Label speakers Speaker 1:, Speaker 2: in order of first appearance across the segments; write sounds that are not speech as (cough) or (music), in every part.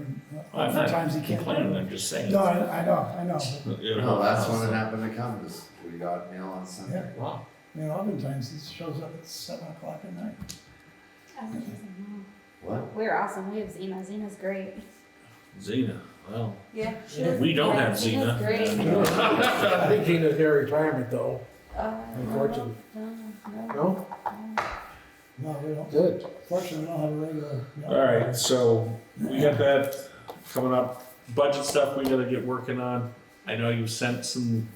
Speaker 1: I'm not
Speaker 2: Oftentimes Oh, he can't.
Speaker 1: complaining, I'm just saying.
Speaker 2: No, I, I know, I know,
Speaker 1: You know,
Speaker 3: No, that's when it happened to Cummins. We got mail on Sunday.
Speaker 1: Wow,
Speaker 2: I mean, oftentimes he shows up at seven o'clock at night.
Speaker 4: Oh, she doesn't know.
Speaker 3: What?
Speaker 4: We're awesome. We have Xena. Xena's great.
Speaker 1: Xena, well,
Speaker 4: Yeah.
Speaker 1: she does- We don't have Xena.
Speaker 4: Xena's great.
Speaker 5: I think Gina's near retirement though,
Speaker 4: Uh,
Speaker 5: Unfortunately.
Speaker 4: No, no, no.
Speaker 5: no?
Speaker 2: No, we don't,
Speaker 5: Good.
Speaker 2: fortunately, we don't have a regular. you know,
Speaker 1: all right, so we got that coming up, budget stuff we gotta get working on. I know you sent some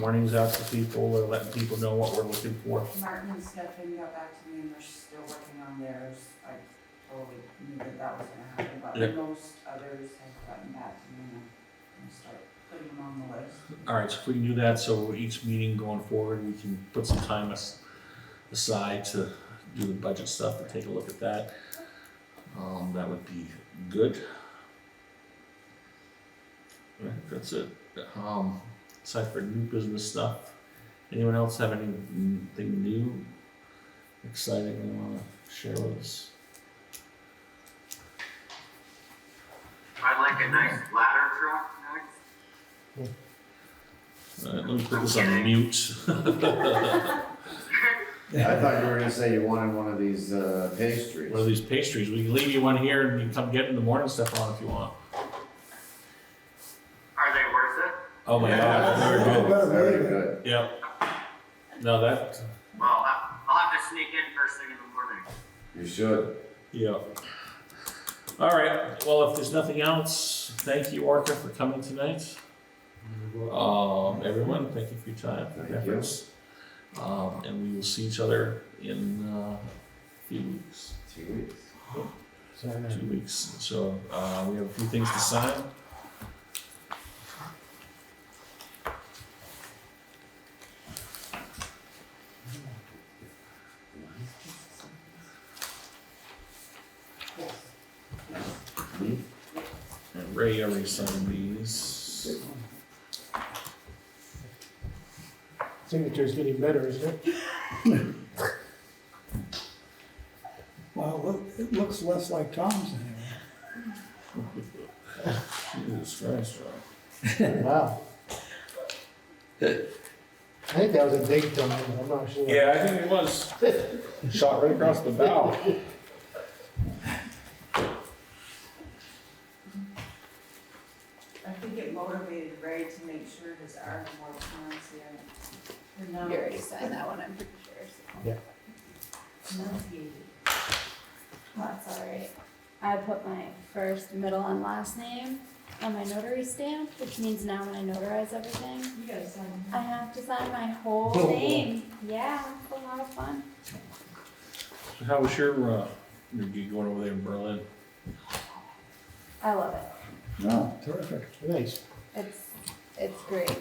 Speaker 1: warnings out to people, or letting people know what we're looking for.
Speaker 6: Martin and Stefan got back to me and they're still working on theirs. I totally knew that that was gonna happen,
Speaker 1: Yeah.
Speaker 6: but most others have gotten back to me and I'm gonna start putting them on the list.
Speaker 1: All right, so if we can do that, so each meeting going forward, we can put some time as- aside to do the budget stuff and take a look at that. Um, that would be good. All right, that's it. Um, aside for new business stuff, anyone else have anything new, exciting they wanna share with us?
Speaker 7: I'd like a nice ladder truck next.
Speaker 1: All right, let me put this on mute.
Speaker 3: I thought you were gonna say you wanted one of these, uh, pastries.
Speaker 1: One of these pastries, we can leave you one here and you can come get it in the morning stuff on if you want.
Speaker 7: Are they worth it?
Speaker 1: Oh my god, they're good.
Speaker 2: Better
Speaker 3: Very
Speaker 2: believe it.
Speaker 3: good.
Speaker 1: Yep. No, that,
Speaker 7: Well, I- I'll have to sneak in first thing in the morning.
Speaker 3: You should.
Speaker 1: yeah. All right, well, if there's nothing else, thank you, Orca, for coming tonight. Um, everyone, thank you for your time, for your
Speaker 3: Thank you.
Speaker 1: efforts. Um, and we will see each other in, uh, a few weeks,
Speaker 3: Two weeks.
Speaker 1: two weeks. So, uh, we have a few things to sign. And Ray already signed these.
Speaker 5: Signature's getting better, isn't it?
Speaker 2: Well, it look- it looks less like Tom's anyway.
Speaker 1: Jesus Christ, Rob.
Speaker 5: (laughs) Wow. I think that was a big time, I'm not sure.
Speaker 1: Yeah, I think it was. Shot right across the bow.
Speaker 6: I think it motivated Ray to make sure his art more currency and and
Speaker 4: You
Speaker 6: not
Speaker 4: already signed that one, I'm pretty sure. so. Oh,
Speaker 6: enunciated.
Speaker 4: That's all right. I put my first, middle, and last name on my notary stamp, which means now when I notarize everything,
Speaker 6: You gotta sign
Speaker 4: I have to sign my whole name. Yeah, it's a lot of fun.
Speaker 1: So how was your, uh, your gig going over there in Berlin?
Speaker 4: I love it.
Speaker 2: No, terrific.
Speaker 5: Nice.
Speaker 4: It's, it's great.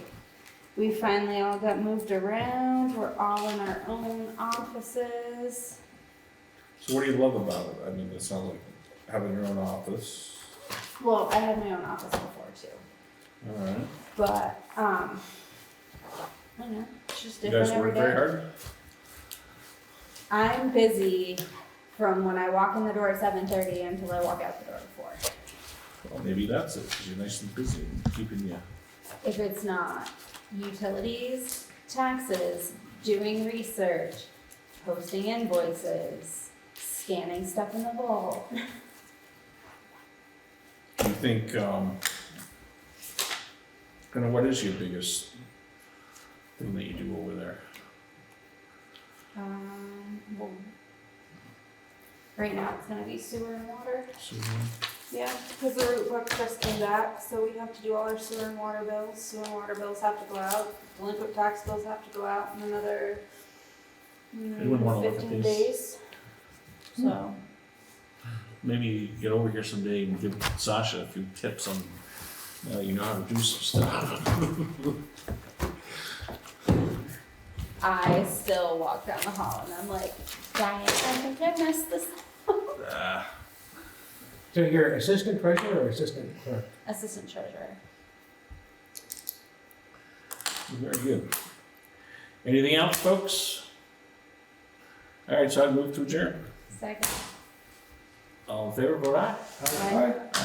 Speaker 4: We finally all got moved around. We're all in our own offices.
Speaker 1: So what do you love about it? I mean, it sounds like having your own office.
Speaker 4: Well, I had my own office before too,
Speaker 1: Alright.
Speaker 4: but, um, I don't know, it's just
Speaker 1: You
Speaker 4: different
Speaker 1: guys
Speaker 4: every
Speaker 1: work very
Speaker 4: day.
Speaker 1: hard?
Speaker 4: I'm busy from when I walk in the door at seven thirty until I walk out the door at four.
Speaker 1: Well, maybe that's it, cause you're nice and busy and keeping you.
Speaker 4: If it's not utilities, taxes, doing research, posting invoices, scanning stuff in the vault.
Speaker 1: Do you think, um, kind of what is your biggest thing that you do over there?
Speaker 4: Um, well, right now it's gonna be sewer and water.
Speaker 1: So,
Speaker 4: Yeah, because the root book just came back, so we have to do all our sewer and water bills, sewer and water bills have to go out, delinquent tax bills have to go out in another mm,
Speaker 1: Anyone wanna look at
Speaker 4: fifteen
Speaker 1: these?
Speaker 4: days. So,
Speaker 1: Maybe get over here someday and give Sasha a few tips on, uh, you know how to do some stuff.
Speaker 4: I still walk down the hall and I'm like, Diane, I think I messed this
Speaker 1: Ah.
Speaker 5: So you're assistant treasurer or assistant clerk?
Speaker 4: assistant treasurer.
Speaker 1: Very good. Anything else, folks? All right, so I move to adjourn.
Speaker 4: Second.
Speaker 1: All in favor, vote aye.
Speaker 4: I-
Speaker 2: All right.